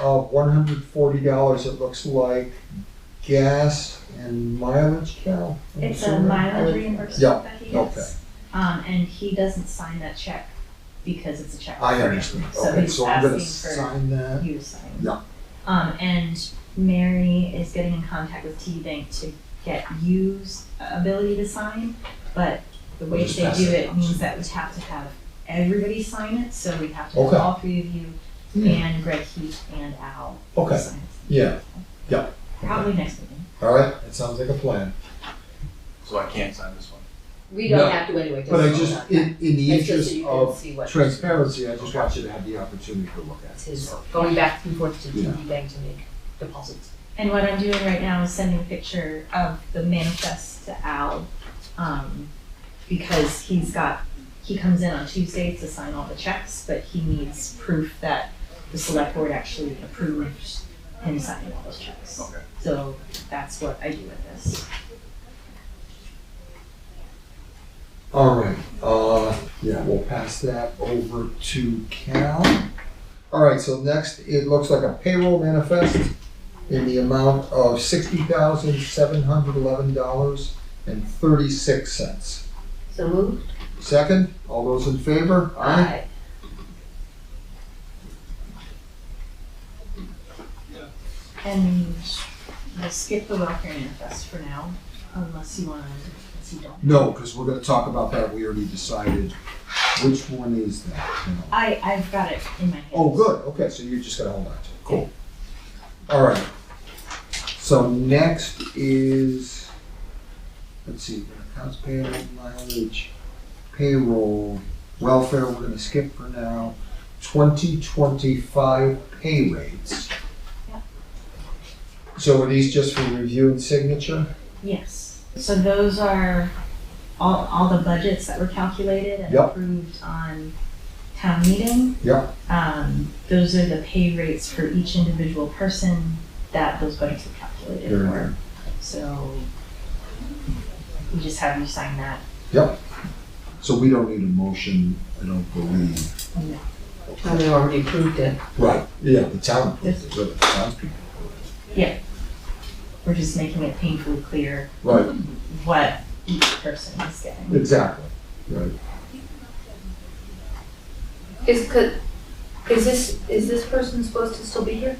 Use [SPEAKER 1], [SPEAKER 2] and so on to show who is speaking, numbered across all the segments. [SPEAKER 1] of Uh, one hundred forty dollars, it looks like, gas and mileage, Carol? I'm
[SPEAKER 2] It's a
[SPEAKER 1] assuming?
[SPEAKER 2] mileage reimbursement
[SPEAKER 1] Yeah,
[SPEAKER 2] that he
[SPEAKER 1] okay.
[SPEAKER 2] gets. Um, and he doesn't sign that check because it's a check.
[SPEAKER 1] I understand,
[SPEAKER 2] So
[SPEAKER 1] okay,
[SPEAKER 2] he's
[SPEAKER 1] so I'm gonna
[SPEAKER 2] asking for-
[SPEAKER 1] sign that,
[SPEAKER 2] You to sign.
[SPEAKER 1] Yeah.
[SPEAKER 2] Um, and Mary is getting in contact with T-Bank to get you's ability to sign, but the way
[SPEAKER 1] We'll just
[SPEAKER 2] they
[SPEAKER 1] pass
[SPEAKER 2] do
[SPEAKER 1] it
[SPEAKER 2] it
[SPEAKER 1] on.
[SPEAKER 2] means that we have to have everybody sign it, so we have to have
[SPEAKER 1] Okay.
[SPEAKER 2] all three of you
[SPEAKER 1] Yeah.
[SPEAKER 2] and Greg Heath and Al
[SPEAKER 1] okay,
[SPEAKER 2] sign it.
[SPEAKER 1] yeah, yeah.
[SPEAKER 2] Probably next meeting.
[SPEAKER 1] All right, that sounds like a plan,
[SPEAKER 3] So I can't sign this one.
[SPEAKER 4] We
[SPEAKER 1] No,
[SPEAKER 4] don't have to anyway.
[SPEAKER 1] but I
[SPEAKER 4] vote
[SPEAKER 1] just,
[SPEAKER 4] on that.
[SPEAKER 1] in, in the
[SPEAKER 4] It's just
[SPEAKER 1] interest
[SPEAKER 4] so you can
[SPEAKER 1] of
[SPEAKER 4] see what
[SPEAKER 1] transparency, I just want you to have the opportunity to look at
[SPEAKER 4] It's
[SPEAKER 1] it.
[SPEAKER 4] his going back and forth to
[SPEAKER 1] Yeah.
[SPEAKER 4] TD Bank to make deposits.
[SPEAKER 2] And what I'm doing right now is sending a picture of the manifest to Al, um, because he's got, he comes in on Tuesday to sign all the checks, but he needs proof that the select board actually approved him signing all those checks.
[SPEAKER 3] Okay.
[SPEAKER 2] So that's what I do with this.
[SPEAKER 1] All right, uh, yeah, we'll pass that over to Cal. All right, so next, it looks like a payroll manifest in the amount of sixty thousand, seven hundred eleven dollars and thirty-six cents.
[SPEAKER 4] So moved.
[SPEAKER 1] Second, all those in favor?
[SPEAKER 4] Aye.
[SPEAKER 2] And we'll skip the welfare manifest for now, unless you wanna, unless you don't.
[SPEAKER 1] No, because we're gonna talk about that, we already decided which one is that. you know.
[SPEAKER 2] I, I've got it in my hand.
[SPEAKER 1] Oh, good, okay, so you're just gonna hold on to it, cool. All right, so next is, let's see, accounts payable, mileage, payroll, welfare, we're gonna skip for now, twenty twenty-five pay rates.
[SPEAKER 2] Yeah.
[SPEAKER 1] So are these just for review and signature?
[SPEAKER 2] Yes, so those are all, all the budgets that were calculated and
[SPEAKER 1] Yep.
[SPEAKER 2] approved on town meeting.
[SPEAKER 1] Yep.
[SPEAKER 2] Um, those are the pay rates for each individual person that those budgets were calculated
[SPEAKER 1] Very
[SPEAKER 2] for. So we just have you sign that.
[SPEAKER 1] So we don't need a motion, I don't believe.
[SPEAKER 4] And they already approved it.
[SPEAKER 1] Right, yeah, the town, the town people.
[SPEAKER 2] We're just making it painfully clear
[SPEAKER 1] Right,
[SPEAKER 2] what each person is getting.
[SPEAKER 1] exactly, right.
[SPEAKER 5] Is, could, is this, is this person supposed to still be here?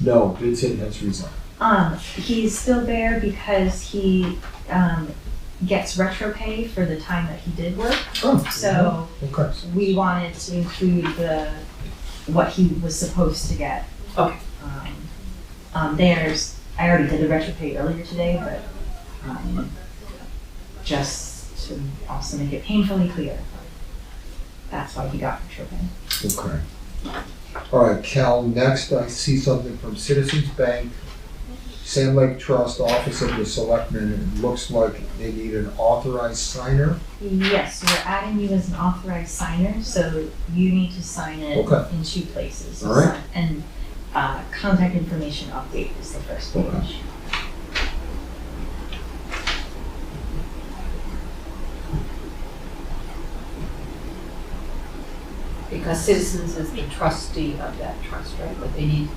[SPEAKER 1] No, Vincent has resigned.
[SPEAKER 2] Um, he's still there because he, um, gets retro pay for the time that he did work.
[SPEAKER 1] Oh,
[SPEAKER 2] So
[SPEAKER 1] Okay.
[SPEAKER 2] we wanted to include the, what he was supposed to get.
[SPEAKER 4] Okay.
[SPEAKER 2] Um, Um, there's, I already did the retro pay earlier today, but, um, just to also make it painfully clear. That's why he got retro pay.
[SPEAKER 1] Okay. All right, Cal, next I see something from Citizens Bank, Sand Lake Trust, Office of the Selectmen, and it looks like they need an authorized signer.
[SPEAKER 2] Yes, we're adding you as an authorized signer, so you need to sign it
[SPEAKER 1] Okay.
[SPEAKER 2] in two places.
[SPEAKER 1] All right.
[SPEAKER 2] And, uh, contact information update is the first
[SPEAKER 1] Okay.
[SPEAKER 2] page.
[SPEAKER 4] Because Citizens is the trustee of that trust, right? But they need,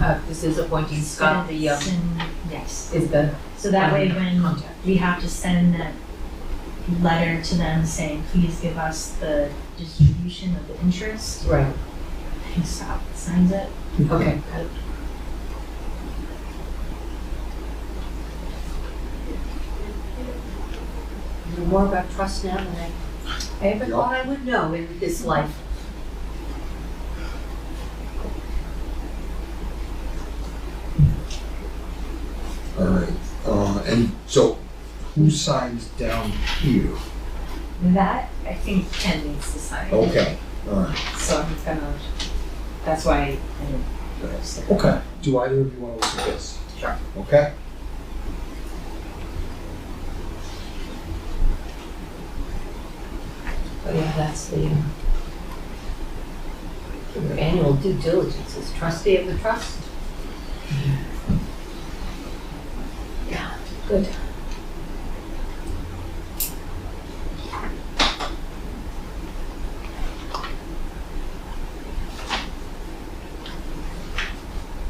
[SPEAKER 4] uh, this is appointing Scott, the, um,
[SPEAKER 2] Stinson, Yes.
[SPEAKER 4] is the um,
[SPEAKER 2] So that way when
[SPEAKER 4] contact.
[SPEAKER 2] we have to send that letter to them saying, please give us the distribution of the interest.
[SPEAKER 4] Right,
[SPEAKER 2] I think Scott signs it.
[SPEAKER 4] okay, got it. I know More about trust now than I I ever
[SPEAKER 1] Yeah.
[SPEAKER 4] thought I would know in this life.
[SPEAKER 1] All right, uh, and so who signs down here?
[SPEAKER 2] That, I think Ken needs to sign.
[SPEAKER 1] Okay, all right,
[SPEAKER 2] So I'm gonna, that's why I didn't put it there.
[SPEAKER 1] okay. Do either of you want to look at this?
[SPEAKER 4] Sure.
[SPEAKER 1] Okay?
[SPEAKER 4] Oh, yeah, that's the, um, your annual due diligence as trustee of the trust. Yeah, good.